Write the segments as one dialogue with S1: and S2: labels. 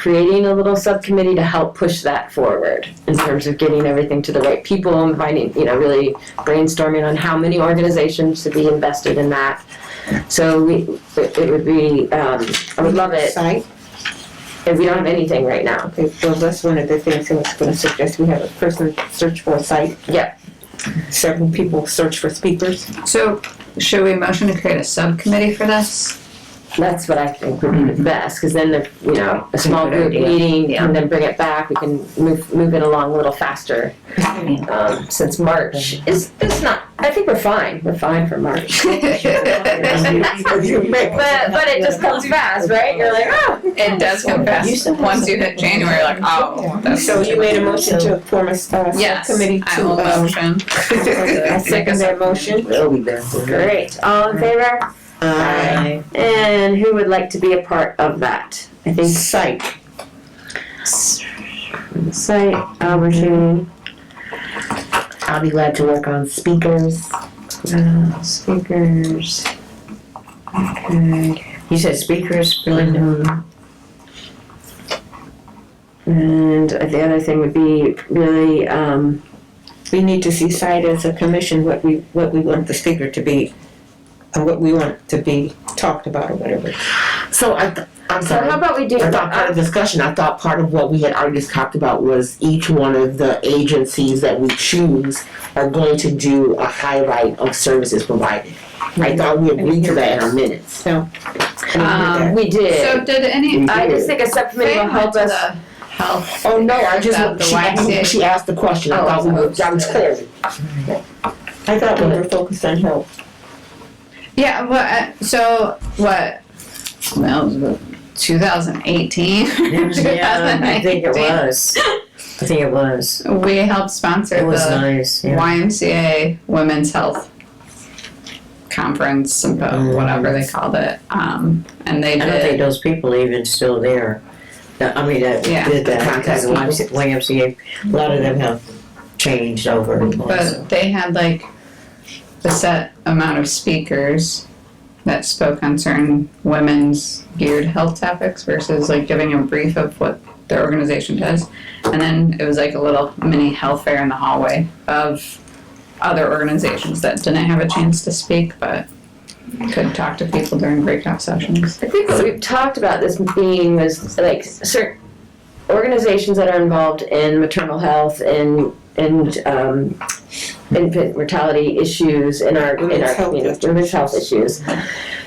S1: creating a little subcommittee to help push that forward in terms of getting everything to the right people and finding, you know, really brainstorming on how many organizations should be invested in that. So we, it it would be, um, I would love it
S2: Site,
S1: if we don't have anything right now.
S2: okay, well, that's one of the things I was gonna suggest, we have a person search for a site.
S1: Yeah.
S2: Several people search for speakers.
S3: So, should we motion to create a subcommittee for this?
S1: That's what I think would be the best, because then the, you know, a small
S3: Good
S1: group
S3: idea.
S1: meeting
S3: Yeah.
S1: and then bring it back, we can move, move it along a little faster.
S3: Yeah.
S1: Um, since March is, is not, I think we're fine, we're fine for March.
S3: It
S1: But but it just comes fast, right? You're like, oh,
S3: does come fast. Once you hit January, like, oh, that's.
S2: So you made a motion to form a uh,
S3: Yes,
S2: subcommittee
S3: I
S2: to,
S3: will
S2: um,
S3: motion.
S2: I second that motion.
S4: We'll be back.
S1: great. All in favor?
S2: Aye.
S1: And who would like to be a part of that? I think
S2: Site,
S1: site opportunity.
S4: I'll be glad to work on speakers.
S1: uh, Speakers. Okay.
S4: You said speakers, Belinda?
S1: Mhm. And the other thing would be really um,
S2: we need to see site as a commission, what we, what we want the speaker to be, and what we want to be talked about or whatever.
S4: So I, th- I'm
S1: so
S4: sorry.
S1: how about we do uh,
S4: I thought part of the discussion, I thought part of what we had already talked about was each one of the agencies that we choose are going to do a highlight of services provided. I thought Mm-hmm. we agreed to that in our minutes.
S2: So.
S3: Um,
S1: we
S3: So
S1: did.
S3: did any,
S1: I just think a subcommittee will
S3: Faye went
S1: help
S3: to
S1: us
S3: the health.
S4: Oh, no, I just,
S3: About the
S4: she,
S3: YMCA.
S4: asked- she asked the question, I
S1: Oh,
S4: thought we were, I was clear.
S2: I thought we were focused on health.
S3: Yeah, well, uh, so what, well, two thousand eighteen?
S4: was. I think it was.
S3: We helped sponsor the
S4: nice,
S3: YMCA Women's Health Conference, sympo- whatever they called it, um, and they
S5: I don't
S3: did.
S5: think those people even still there. That- I mean, that
S3: Yeah.
S5: did that
S4: Contact
S5: because the YMCA, YMCA, a lot of them have changed over.
S3: But they had like a set amount of speakers that spoke on certain women's geared health topics versus like giving a brief of what their organization does. And then it was like a little mini health fair in the hallway of other organizations that didn't have a chance to speak but could talk to people during breakout sessions.
S1: I think what we've talked about this being was like certain organizations that are involved in maternal health and and um, infant mortality issues in our in
S2: Women's
S1: our
S2: health
S1: you know,
S2: issues.
S1: women's health issues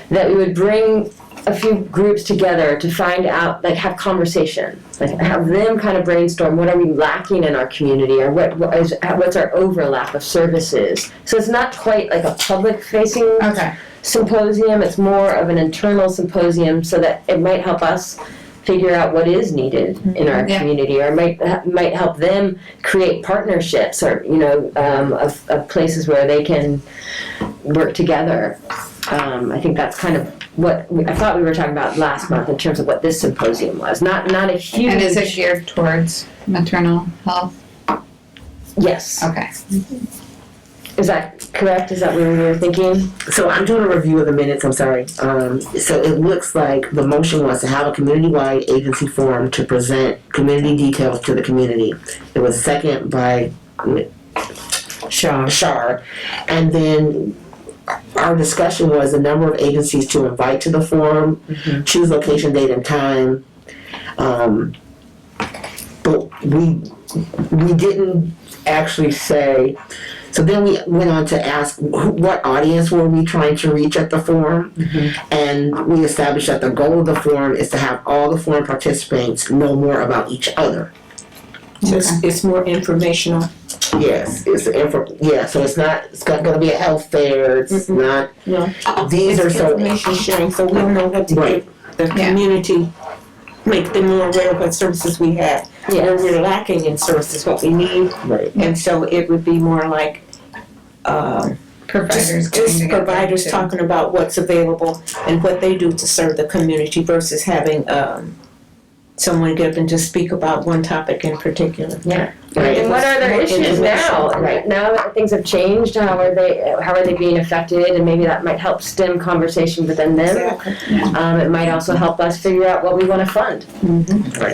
S1: that we would bring a few groups together to find out like have conversation like have them kind of brainstorm what are we lacking in our community or what, what is, what's our overlap of services so it's not quite like a public facing
S3: Okay.
S1: symposium. It's more of an internal symposium so that it might help us figure out what is needed in our
S3: Yeah.
S1: community, or might might help them create partnerships, or you know, um, of, of places where they can work together. Um, I think that's kind of what we, I thought we were talking about last month in terms of what this symposium was. Not not a huge.
S3: And is it geared towards maternal health?
S1: yes.
S3: Okay.
S1: Is that correct? Is that what we were thinking?
S4: So I'm doing a review of the minutes, I'm sorry. Um, so it looks like the motion was to have a community-wide agency forum to present community details to the community. It was second by
S5: Shaw,
S4: Shar. And then our discussion was the number of agencies to invite to the forum, choose location, date, and time. Um, but we we didn't actually say. So then we went on to ask who, what audience were we trying to reach at the forum, and we established that the goal of the forum is to have all the forum participants know more about each other.
S2: So it's, it's more informational.
S4: Yes, it's the info. Yeah, so it's not. It's not going to be a health fair. It's
S2: Mhm.
S4: not.
S2: No.
S4: These are
S2: It's
S4: so.
S2: information sharing, so we know what to
S4: Right.
S2: give the
S3: Yeah.
S2: community, make them more aware of what services we have. Where
S1: Yes.
S2: we're lacking in services, what we need,
S4: Right.
S2: and so it would be more like, um,
S3: Providers
S2: Just,
S3: getting
S2: just
S3: together
S2: providers
S3: too.
S2: talking about what's available and what they do to serve the community versus having, um, someone get up and just speak about one topic in particular.
S4: Right.
S1: And what are their
S2: More
S1: issues
S2: information.
S1: now? Right now that things have changed, how are they how are they being affected? And maybe that might help stem conversation within them. Um, it might also help us figure out what we want to fund.